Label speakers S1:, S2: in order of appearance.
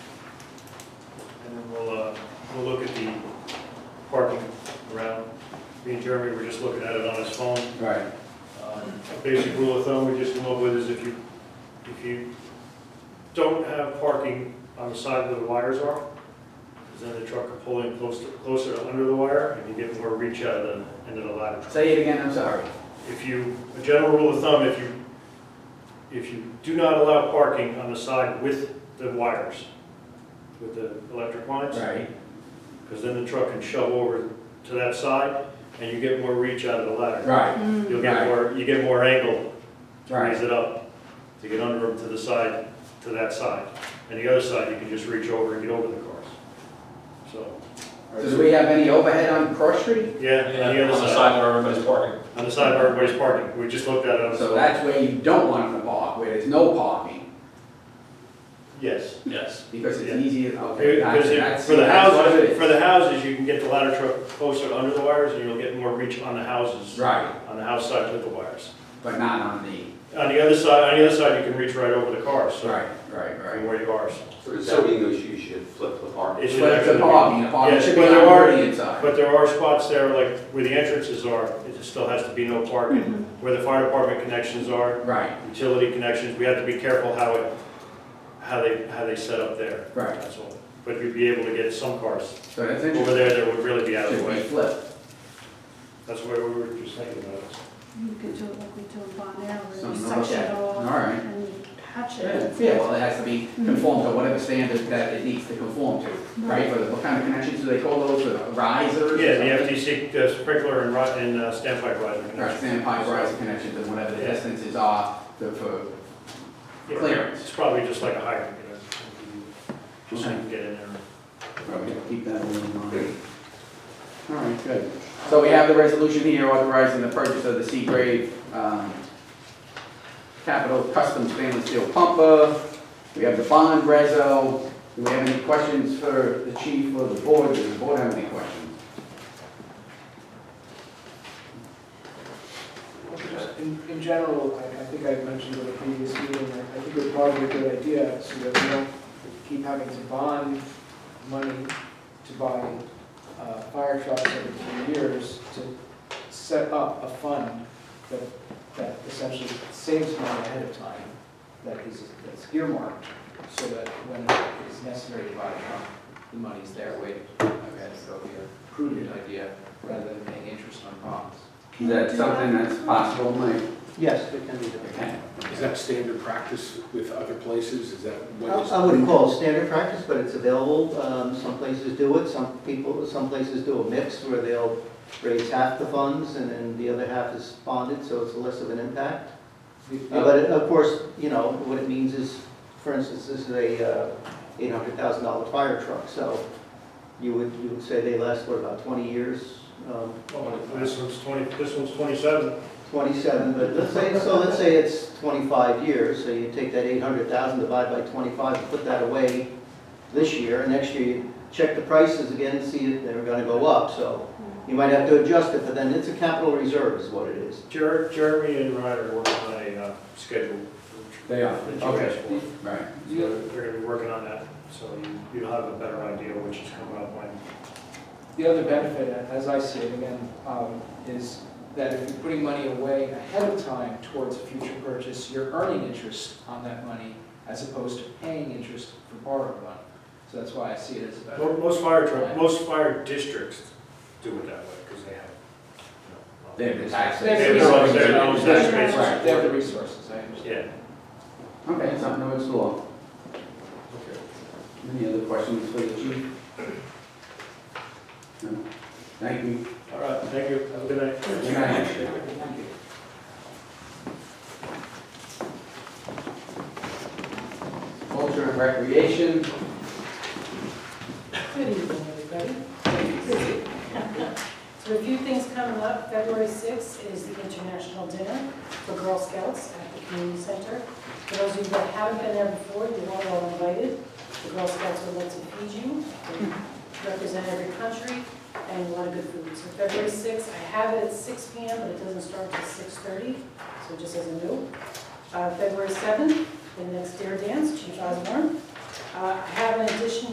S1: uh, and Jeremy were just looking at it on his phone.
S2: Right.
S1: Um, A basic rule of thumb we just come up with is if you, if you don't have parking on the side where the wires are, 'cause then the truck can pull in closer, closer to under the wire, and you get more reach out of the end of the ladder truck.
S2: Say it again, I'm sorry.
S1: If you, a general rule of thumb, if you, if you do not allow parking on the side with the wires, with the electric lines,
S2: Right.
S1: because then the truck can shove over to that side, and you get more reach out of the ladder.
S2: Right,
S1: You'll get
S2: Right.
S1: more, you get more angle raise
S2: right,
S1: it up to get under them to the side, to that side. And the other side, you can just reach over and get over the cars. So,
S2: Does we have any overhead on Cross Street?
S1: yeah,
S3: Yeah,
S1: on the other
S3: On the
S1: side,
S3: side where everybody's parking.
S1: on the side where everybody's parking, we just looked at it. on the
S2: So
S1: side.
S2: that's where you don't want them to park, where there's no parking,
S1: Yes.
S3: Yes.
S2: because it's
S1: Yeah.
S2: easier, okay,
S1: Because
S2: gotcha,
S1: if-
S2: that's,
S1: for the
S2: that's what it
S1: houses,
S2: is.
S1: for the houses, you can get the ladder truck closer under the wires and you'll get more reach on the houses,
S2: Right,
S1: on the house side with the wires.
S2: but not on the,
S1: On the other side, on the other side, you can reach right over the cars, so,
S2: right, right, right.
S1: from where you are. so.
S4: For the zoning issue, you should flip the parking.
S1: It should
S2: But it's
S1: actually
S2: a
S1: be-
S2: parking, a parking
S1: Yes,
S2: should be
S1: but
S2: on
S1: there
S2: the
S1: are-
S2: audience side.
S1: But there are spots there, like where the entrances are, it just still has to be no parking. Where the fire department connections are,
S2: Right,
S1: utility connections, we have to be careful how it, how they, how they set up there.
S2: right,
S1: That's all. But you'd be able to get some cars
S2: so that's
S1: over
S2: interesting,
S1: there that would really be out of the
S2: should be
S1: way.
S2: flipped,
S1: That's where we were just thinking about it.
S5: You could do it like we do in Bon Air, where you
S2: something to look
S5: section
S2: at,
S5: it
S2: all
S5: off
S2: right.
S5: and patch
S2: Yeah,
S5: it.
S2: yeah, well, it has to be conformed to whatever standard that it needs to conform to, right? But what kind of connections do they call those, The risers? or
S1: Yeah,
S2: something?
S1: the FTC uh, sprinkler and rod, and uh, standpipe riser
S2: Right,
S1: connection.
S2: standpipe riser connections and whatever the distances are to- for
S1: Yeah,
S2: clearance.
S1: It's probably just like a hydrant, you know, just so you can get in there.
S2: Probably keep that one in mind. All right, good. So we have the resolution here authorizing the purchase of the Seagrave um, Capital Custom Stainless Steel Pumper. We have the bond reso. Do we have any questions for the chief or the board? Does the board have any questions?
S6: Just In, in general, I, I think I mentioned in the previous meeting, that I think it would probably be a good idea, so that we don't keep having to bond money to buy, uh, fire trucks every few years, to set up a fund that, that essentially saves money ahead of time, that is, that's earmarked, so that when it is necessary to buy a truck, the money's there waiting. Okay, so it'll be a prudent idea, rather than paying interest on bonds.
S2: Is that something that's possible, Mike?
S7: Yes, it can be done.
S2: Okay.
S8: Is that standard practice with other places? Is that what is?
S7: I I wouldn't call it standard practice, but it's available. Um, Some places do it, some people, some places do a mix where they'll raise half the funds and then the other half is bonded, so it's less of an impact. Uh, But of course, you know, what it means is, for instance, this is a uh, $800,000 fire truck, so you would, you would say they last, what, about 20 years? Um,
S1: This one's twenty, this one's twenty-seven.
S7: 27, but let's say, so let's say it's 25 years, so you take that 800,000, divide by 25, and put that away this year, and next year you check the prices again, and see if they're gonna go up, so
S5: Mm-hmm.
S7: you might have to adjust it, but then it's a capital reserve is what it is.
S1: Jer- Jeremy and Ryder work on a uh, schedule.
S2: They are,
S1: that you
S2: okay,
S1: asked for.
S2: right.
S6: Uh,
S1: So They're gonna be working on that, so you- you'll have a better idea which is coming up when.
S6: The other benefit, as I see it again, um, is that if you're putting money away ahead of time towards a future purchase, you're earning interest on that money as opposed to paying interest for borrowed money. So that's why I see it as a benefit.
S1: Mo- Most fire truck, most fire districts do it that way, because they have. you know,
S2: They have the
S6: They have
S1: They have their own- their own tax bases.
S2: Right.
S6: They have the resources, I understand.
S1: Yeah.
S2: Okay, something to explore. Any other questions for the chief? No? Thank you.
S1: All right, thank you, have a good night.
S2: Good night. Culture and recreation,
S5: Good evening, everybody. So a few things coming up. February 6th is the International Dinner for Girl Scouts at the Community Center. For those of you that haven't been there before, you are all invited. The Girl Scouts would like to feed you, They represent every country, and a lot of good food. So February 6th, I have it at 6 PM, but it doesn't start till 6:30, so just as a note. Uh, February 7th, the next Dare Dance, Chief Osborne. Uh, I have an addition